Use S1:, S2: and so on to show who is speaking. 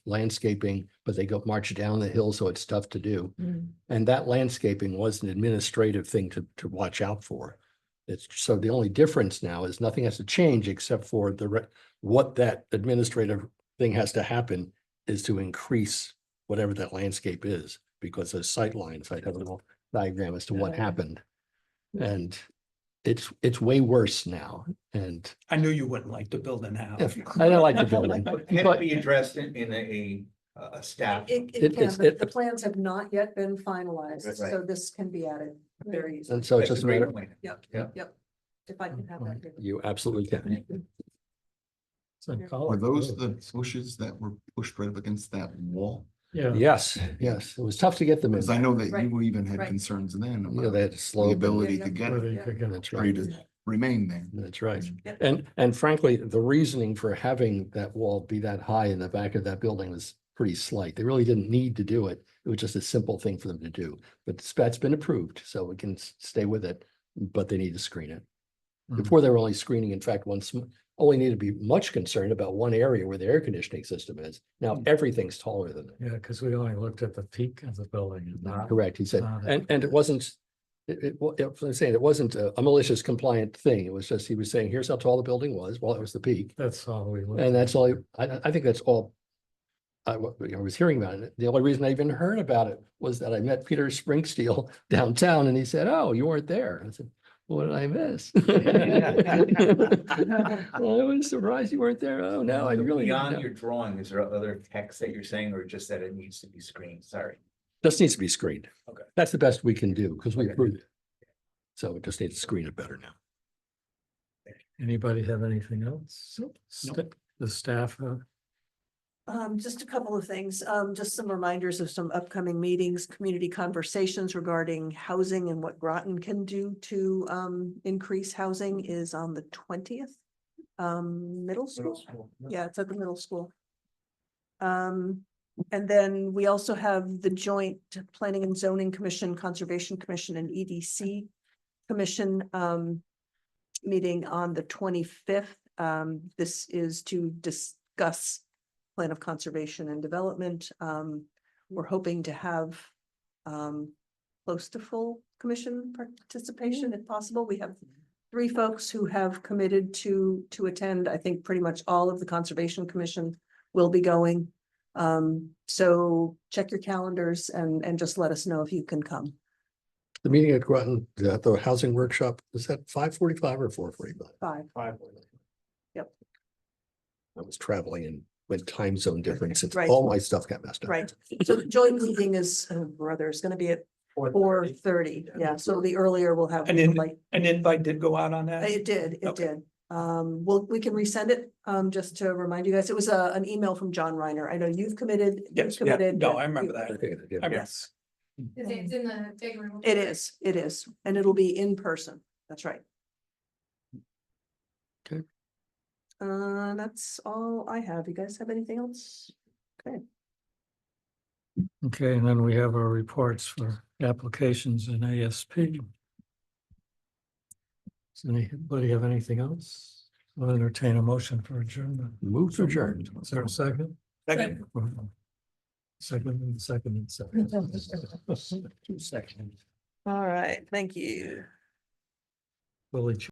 S1: landscaping, but they go march down the hill, so it's tough to do.
S2: Mm-hmm.
S3: Mm.
S1: And that landscaping was an administrative thing to, to watch out for. It's, so the only difference now is nothing has to change except for the, re- what that administrative thing has to happen is to increase whatever that landscape is, because those sight lines, I have a little diagram as to what
S3: Yeah.
S1: happened.
S3: Yeah.
S1: And it's, it's way worse now, and
S4: I knew you wouldn't like the building now.
S1: if- I don't like the building.
S5: Can
S1: But-
S5: it be addressed in, in a, a staff?
S2: It,
S1: It-
S2: it can,
S1: it's- it-
S2: but the plans have not yet been finalized,
S5: Right, right.
S2: so this can be added very easily.
S1: And so it's just a matter,
S2: Yep,
S5: Yeah.
S2: yep. If I can have that. here.
S1: you absolutely can.
S6: Oh,
S7: Are those the bushes that were pushed right up against that wall?
S6: Mm.
S4: Yeah.
S1: Yes, yes, it was tough to get them in.
S7: Because I know that
S2: Right,
S7: you even had
S2: right.
S7: concerns then
S1: You know,
S7: about
S1: they had to
S7: the
S1: slow. them.
S7: ability
S2: Yeah,
S7: to
S2: yeah.
S7: get it,
S2: Yeah.
S1: That's
S7: for you
S1: right.
S7: to remain there.
S1: That's right.
S2: Yeah.
S1: And, and frankly, the reasoning for having that wall be that high in the back of that building was pretty slight. They really didn't need to do it. It was just a simple thing for them to do. But the spat's been approved, so we can s- stay with it, but they need to screen it.
S7: Mhm.
S1: Before they were only screening, in fact, once, only need to be much concerned about one area where the air conditioning system is. Now everything's taller than it.
S6: Yeah, because we only looked at the peak of the building and not.
S1: Correct, he said,
S6: Ah, that-
S1: and, and it wasn't, it, it, wa- it- I'm saying, it wasn't a a malicious compliant thing, it was just, he was saying, here's how tall the building was, well, it was the peak,
S6: That's all we. looked
S1: and that's
S6: at.
S1: all, I- I, I think that's all I, wa- I was hearing about it, the only reason I even heard about it was that I met Peter Springsteel downtown, and he said, oh, you weren't there, I said, what did I miss? Well, I was surprised you weren't there, oh, no, I really,
S5: Beyond
S1: no.
S5: your drawing, is there other text that you're saying, or just that it needs to be screened? Sorry.
S1: this needs to be screened.
S5: Okay.
S1: That's the best we can do, because we
S5: Okay.
S1: approved it. So we just need to screen it better now.
S6: Anybody have anything else? Sta- The staff, uh,
S2: Um, just a couple of things, um, just some reminders of some upcoming meetings, community conversations regarding housing and what Groton can do to, um, increase housing is on the twentieth. Um, middle school, yeah, it's at the middle school. Um, and then we also have the joint Planning and Zoning Commission, Conservation Commission and EDC Commission, um, meeting on the twenty-fifth. Um, this is to discuss plan of conservation and development. Um, we're hoping to have um, close to full commission participation if possible. We have three folks who have committed to, to attend. I think pretty much all of the Conservation Commission will be going. Um, so check your calendars and, and just let us know if you can come.
S1: The meeting at Groton, the, the housing workshop, is that five forty-five or four forty-five?
S2: Five. Yep.
S1: I was traveling and went time zone difference, it's
S2: Right.
S1: all my stuff got messed up.
S2: Right. So the joint meeting is, oh, brother, is gonna be at four thirty. Yeah, so the earlier we'll have.
S4: And then-
S2: like-
S4: An invite did go out on that?
S2: It did, it
S4: Okay.
S2: did. Um, well, we can resend it, um, just to remind you guys. It was a, an email from John Reiner. I know you've committed. you've
S4: Yes, yeah,
S2: committed,
S4: no,
S2: but
S4: I remember
S2: you-
S4: that.
S1: Okay,
S4: I
S1: yeah.
S4: mean,
S2: Yes,
S3: Is it- It's in the big room.
S2: it is, it is, and it'll be in person. That's right.
S1: Okay.
S2: Uh, that's all I have. You guys have anything else?
S6: okay, and then we have our reports for applications and ASP. Does anybody have anything else? I'll entertain a motion for adjournment.
S1: Move to adjourn.
S6: Is there a second?
S4: Second.
S6: Second and second and second. Two seconds.
S2: All right, thank you.
S6: Willie Ch-